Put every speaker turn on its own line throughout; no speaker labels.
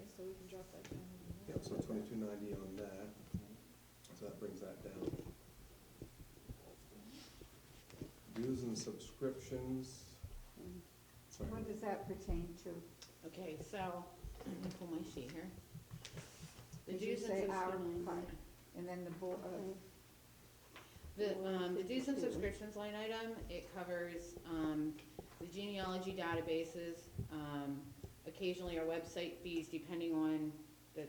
what's that doing?
Yeah, so twenty-two ninety on that, so that brings that down. Dues and subscriptions, sorry,
What does that pertain to?
Okay, so, let me pull my sheet here. The
Did you
dues and
say our
subscriptions.
part? And then the uh, board,
The, um, the dues and
152.
subscriptions line item, it covers, um, the genealogy databases, um, occasionally our website fees, depending on the,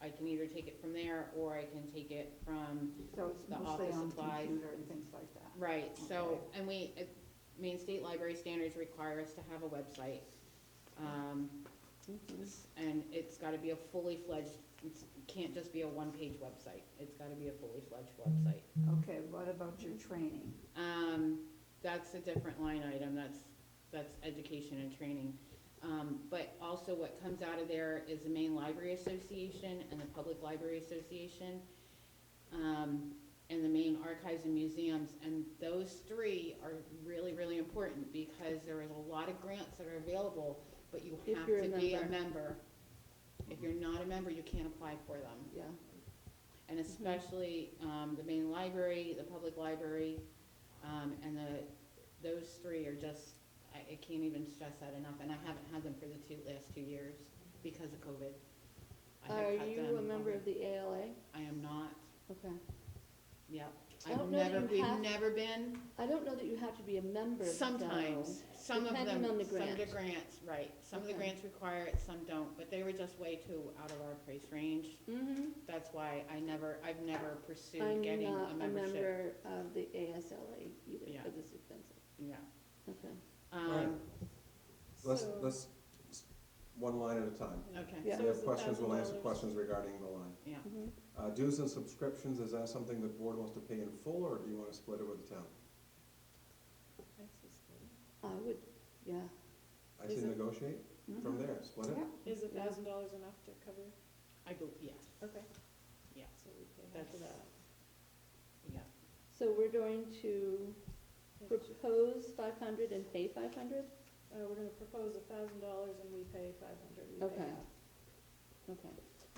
I can either take it from there, or I can take it from,
so it's
the
mostly
office
on
supplies.
computer and things like that.
right, so,
Okay.
and we, uh, I mean, state library standards require us to have a website. Um, and it's gotta be a fully fledged, it's, can't just be a one-page website, it's gotta be a fully fledged website.
Okay, what about your training?
Um, that's a different line item, that's, that's education and training. Um, but also what comes out of there is the Maine Library Association and the Public Library Association, um, and the Maine Archives and Museums, and those three are really, really important because there is a lot of grants that are available, but you
If
have
you're a
to be a
member.
member. If you're not a member, you can't apply for them.
Yeah,
And especially, um, the main library, the public library, um, and the, those three are just, I, I can't even stress that enough, and I haven't had them for the two, last two years because of COVID. I have
are
cut
you
them
a member
over-
of the ALA?
I am not,
Okay.
yep.
I
I've
don't know that
never,
you
we've
have-
never been,
I don't know that you have to be a member though.
sometimes, some of them,
Depending
some
on the
of the
grant.
grants, right, some of the
Okay.
grants require it, some don't, but they were just way too out of our price range.
Mhm.
That's why I never, I've never pursued
I'm
getting
not
a
a
membership,
member of the ASLA either,
Yeah.
but it's expensive.
yeah.
Okay.
Um,
let's, let's, s- one line at a time.
Okay,
Yeah.
If you have questions, we'll answer questions regarding the line.
yeah.
Mhm.
Uh, dues and subscriptions, is that something the board wants to pay in full, or do you wanna split it with the town?
I would, yeah.
I say
Is it-
negotiate from
Mhm.
there, split it.
Yeah.
Is a
Yeah.
thousand dollars enough to cover?
I go, yes,
Okay.
Yeah.
So we pay half
That's-
of that.
yeah.
So we're going to
Yeah.
propose five hundred and pay five hundred?
Uh, we're gonna propose a thousand dollars and we pay five hundred, we pay
Okay.
half.
Okay.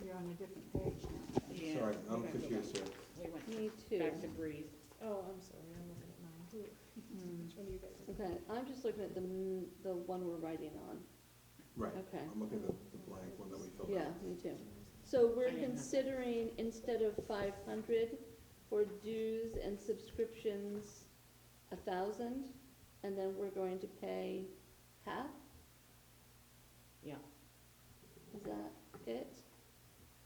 You're on a different page now.
Yeah.
Sorry,
We
I'm
went
confused here.
We went
Me too.
back to breathe.
Oh, I'm sorry, I'm looking at mine, who, which
Mm.
one do you guys? are-
Okay, I'm just looking at the, m- the one we're writing on.
Right,
Okay.
I'm looking at the the blank one that we filled
Yeah,
out.
me too. So
I
we're
didn't have that.
considering, instead of five hundred for dues and subscriptions, a thousand, and then we're going to pay half?
Yeah.
Is that it?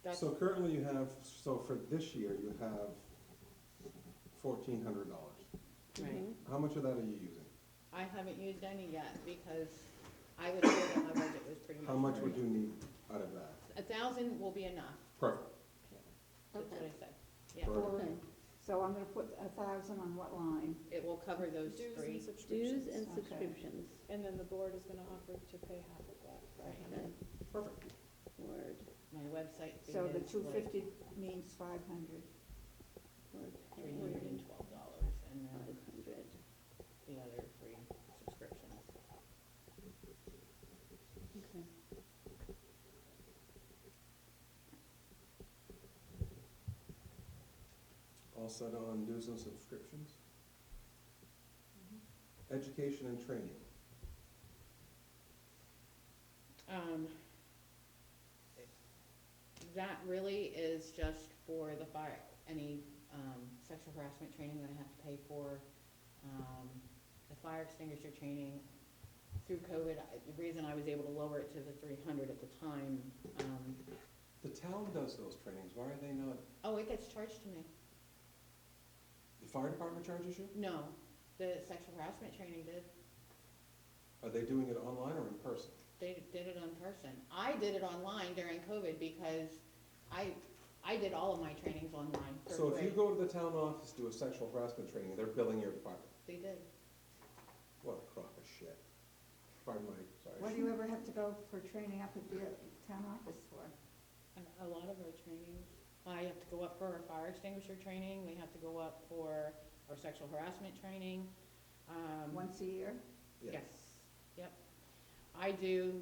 That's,
So currently you have, so for this year, you have fourteen hundred dollars.
right.
Mhm.
How much of that are you using?
I haven't used any yet because I was told that my budget was pretty much.
How much
full.
would you need out of that?
A thousand will be enough,
Perfect.
that's what
Okay,
I said. Yeah,
Perfect.
okay.
So I'm gonna put a thousand on what line?
it will cover those
Dues and
three.
subscriptions.
Dues and
Okay.
subscriptions,
And then the board is gonna offer to pay half of that, five
okay,
hundred.
Perfect.
word,
My website fee
So the
is
two
like
fifty means five hundred.
word
three hundred and twelve dollars and then
Five hundred.
the other three subscriptions.
Okay.
All set on dues and subscriptions? Education and training.
Um, that really is just for the fire, any, um, sexual harassment training that I have to pay for, um, the fire extinguisher training. Through COVID, I, the reason I was able to lower it to the three hundred at the time, um,
The town does those trainings, why are they not,
oh, it gets charged to me.
the fire department charges you?
No, the sexual harassment training did,
Are they doing it online or in person?
they did it on person. I did it online during COVID because I, I did all of my trainings online for free.
So if you go to the town office, do a sexual harassment training, they're billing your department.
They did.
What a crock of shit. Pardon my,
What
sorry.
do you ever have to go for training up at the town office for?
And A lot of our trainings, I have to go up for our fire extinguisher training, we have to go up for our sexual harassment training. Um,
Once a year?
Yeah.
Yes, yep. I do